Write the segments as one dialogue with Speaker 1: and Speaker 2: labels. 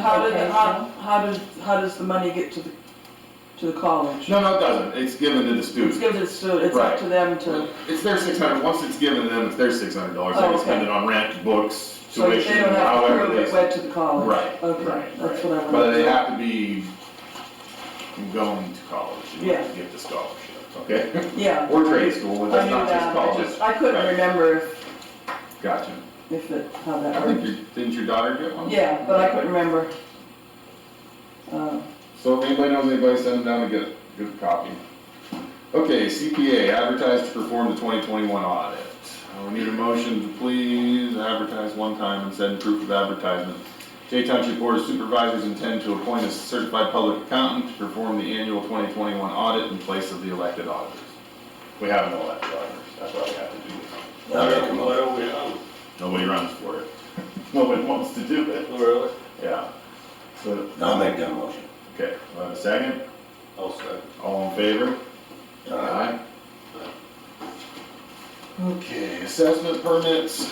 Speaker 1: How did, how, how does, how does the money get to the, to the college?
Speaker 2: No, no, it doesn't. It's given to the
Speaker 1: It's
Speaker 2: student.
Speaker 1: given to the student, it's up
Speaker 2: Right.
Speaker 1: to them to,
Speaker 2: It's their six hundred, once it's given to them, it's their six hundred dollars. They
Speaker 1: Oh,
Speaker 2: can
Speaker 1: okay.
Speaker 2: spend it on rent, books,
Speaker 1: so they
Speaker 2: tuition,
Speaker 1: don't have to
Speaker 2: however
Speaker 1: prove
Speaker 2: it
Speaker 1: it
Speaker 2: is.
Speaker 1: went to the college.
Speaker 2: Right,
Speaker 1: Okay,
Speaker 2: right,
Speaker 1: that's
Speaker 2: right.
Speaker 1: what I
Speaker 2: But they
Speaker 1: wanted.
Speaker 2: have to be going to college in order
Speaker 1: Yeah.
Speaker 2: to get the scholarship, okay?
Speaker 1: Yeah,
Speaker 2: Or trade school, but
Speaker 1: I
Speaker 2: that's
Speaker 1: knew
Speaker 2: not just
Speaker 1: that, I
Speaker 2: college.
Speaker 1: just, I couldn't
Speaker 2: Right.
Speaker 1: remember if,
Speaker 2: Gotcha.
Speaker 1: if it, how
Speaker 2: I
Speaker 1: that
Speaker 2: think
Speaker 1: worked.
Speaker 2: your, didn't your daughter get one?
Speaker 1: Yeah, but I couldn't remember. Uh,
Speaker 2: So if anybody knows anybody, send them down and get, get a copy. Okay, CPA, advertised to perform the twenty twenty-one audit. Uh, We need a motion to please advertise one time and send proof of advertisement. Jay Township Board of Supervisors intend to appoint a certified public accountant to perform the annual twenty twenty-one audit in place of the elected auditors. We have no elected auditors, that's why we have to do this. Nobody runs for it. Nobody wants to do it,
Speaker 3: Really?
Speaker 2: yeah. So,
Speaker 4: I'll make that motion.
Speaker 2: okay, we'll have a second,
Speaker 3: I'll second.
Speaker 2: all in favor? Aye. Okay, assessment permits.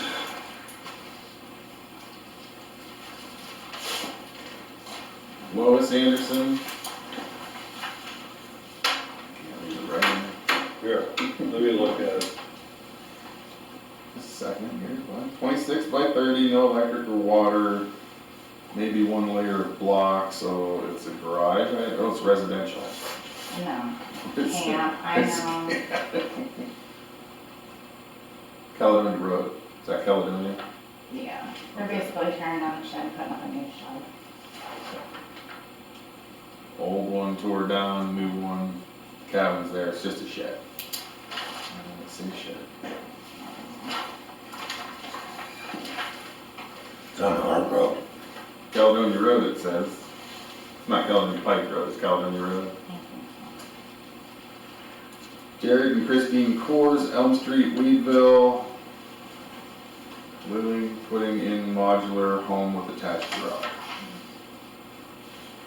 Speaker 2: Lois Anderson. Can't read the writing.
Speaker 3: Here, let me look at it.
Speaker 2: Just a Second here, what? Twenty-six by thirty, no electric or water, maybe one layer of block, so it's a garage, right? Oh, it's residential.
Speaker 5: No,
Speaker 2: It's-
Speaker 5: yeah, I
Speaker 2: it's-
Speaker 5: know,
Speaker 2: Caledonia Road, is that Caledonia?
Speaker 5: yeah, they're basically tearing down the shed and putting up a new shed.
Speaker 2: Old one tore down, new one, cabin's there, it's just a shed. Uh, It's a shed.
Speaker 4: It's on Hart Road.
Speaker 2: Caledonia Road, it says. It's not Caledonia Pike Road, it's Caledonia Road. Jared and Christine Coors, Elm Street, Weedville. Living, putting in modular home with attached garage.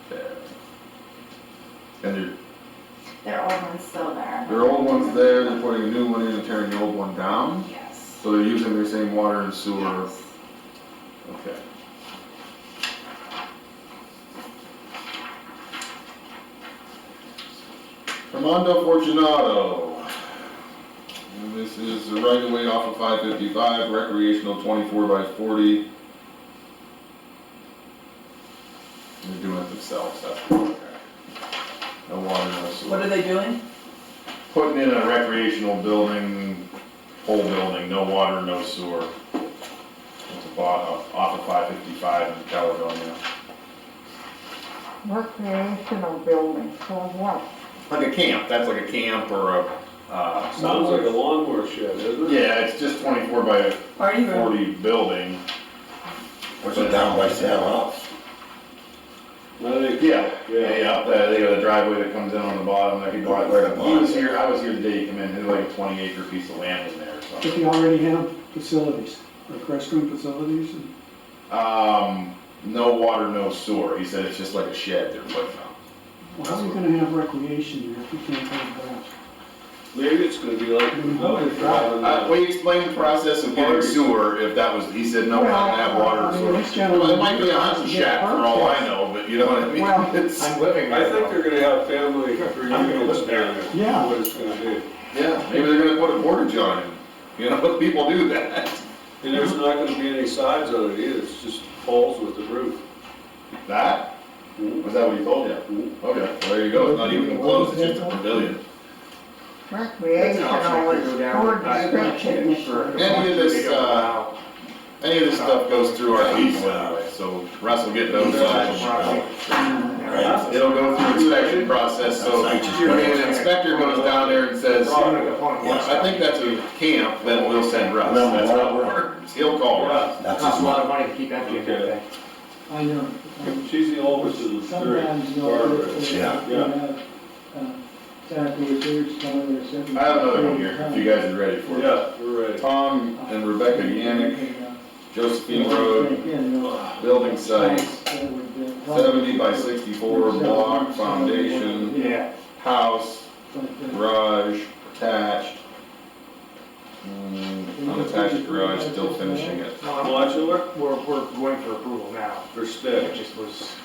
Speaker 2: There. And there,
Speaker 5: Their old one's still there.
Speaker 2: their old one's there, they're putting a new one in and tearing the old one down.
Speaker 5: Yes.
Speaker 2: So they're using their same water and sewer.
Speaker 5: Yes.
Speaker 2: Okay. Armando Fortunato. And This is a right of way off of five fifty-five, recreational twenty-four by forty. They're doing it themselves, that's what they're. No water, no sewer.
Speaker 1: What are they doing?
Speaker 2: Putting in a recreational building, whole building, no water, no sewer. It's a bought off off of five fifty-five in Caledonia.
Speaker 6: recreational building for what?
Speaker 2: Like a camp, that's like a camp or a, uh.
Speaker 3: Sounds like a lawnmower shed, isn't it?
Speaker 2: Yeah, it's just twenty-four by
Speaker 1: Are you, or
Speaker 2: forty building.
Speaker 4: What's it down by Sam House?
Speaker 3: I think,
Speaker 2: Yeah, yeah,
Speaker 3: Yeah.
Speaker 2: yeah, up there, they got a driveway that comes in on the bottom, like he bought.
Speaker 4: Where the
Speaker 2: He
Speaker 4: barn
Speaker 2: was
Speaker 4: is.
Speaker 2: here, I was here the day he came in, there's like a twenty acre piece of land in there, or something.
Speaker 7: But they already have facilities, like restroom facilities and
Speaker 2: Um, no water, no sewer, he said it's just like a shed they're putting up.
Speaker 7: well, how are you gonna have recreation there if you can't have that?
Speaker 3: maybe it's gonna be like.
Speaker 2: Uh,
Speaker 3: Well,
Speaker 2: we explained the process of getting sewer, if that was, he said, no, I don't have water or
Speaker 7: Well, I
Speaker 2: sewer.
Speaker 7: mean, this gentleman-
Speaker 2: Well, it might be a hunting shack for all I know, but you know what I mean?
Speaker 7: Well,
Speaker 2: It's-
Speaker 4: living
Speaker 3: I think they're gonna have family reunions down there.
Speaker 7: Yeah.
Speaker 3: What it's gonna be.
Speaker 2: Yeah, maybe they're gonna put a portage on it, you know, but people do that.
Speaker 3: And there's not gonna be any sides on it either, it's just poles with the roof.
Speaker 2: That, was that what you told you? Okay, well, there you go, it's not even closed, it's just a pavilion.
Speaker 6: Recreational is poor description.
Speaker 2: Any of this, uh, any of this stuff goes through our people anyway, so Russ will get those. uh,
Speaker 4: Right.
Speaker 2: It'll go through inspection process, so, I mean, an inspector goes down there and says,
Speaker 4: Yeah.
Speaker 2: I think that's a camp, then we'll send Russ,
Speaker 4: No,
Speaker 2: that's how it
Speaker 4: whatever.
Speaker 2: works, he'll call Russ.
Speaker 4: That's
Speaker 8: Costs
Speaker 4: his
Speaker 8: a lot
Speaker 4: mother.
Speaker 8: of money to keep that
Speaker 3: Okay.
Speaker 8: together.
Speaker 7: I know. um,
Speaker 3: She's the oldest of the three.
Speaker 7: Sometimes, you know,
Speaker 3: Barbara
Speaker 7: they-
Speaker 3: is.
Speaker 7: they-
Speaker 4: Yeah.
Speaker 7: they have, uh, sanitary reserves, some of their seven-
Speaker 2: I have another one here, if you guys are ready for it.
Speaker 3: Yeah, we're ready.
Speaker 2: Tom and Rebecca Yannick, Josephine Road,
Speaker 7: Yeah, you know,
Speaker 2: building site,
Speaker 7: that would, uh,
Speaker 2: seventy by sixty-four block foundation,
Speaker 8: Yeah,
Speaker 2: house,
Speaker 7: but, uh,
Speaker 2: garage, attached. Mm, Unattached garage, still finishing it.
Speaker 3: Modular
Speaker 8: We're, we're going for approval now,
Speaker 3: for
Speaker 8: it
Speaker 3: stick?
Speaker 8: just was.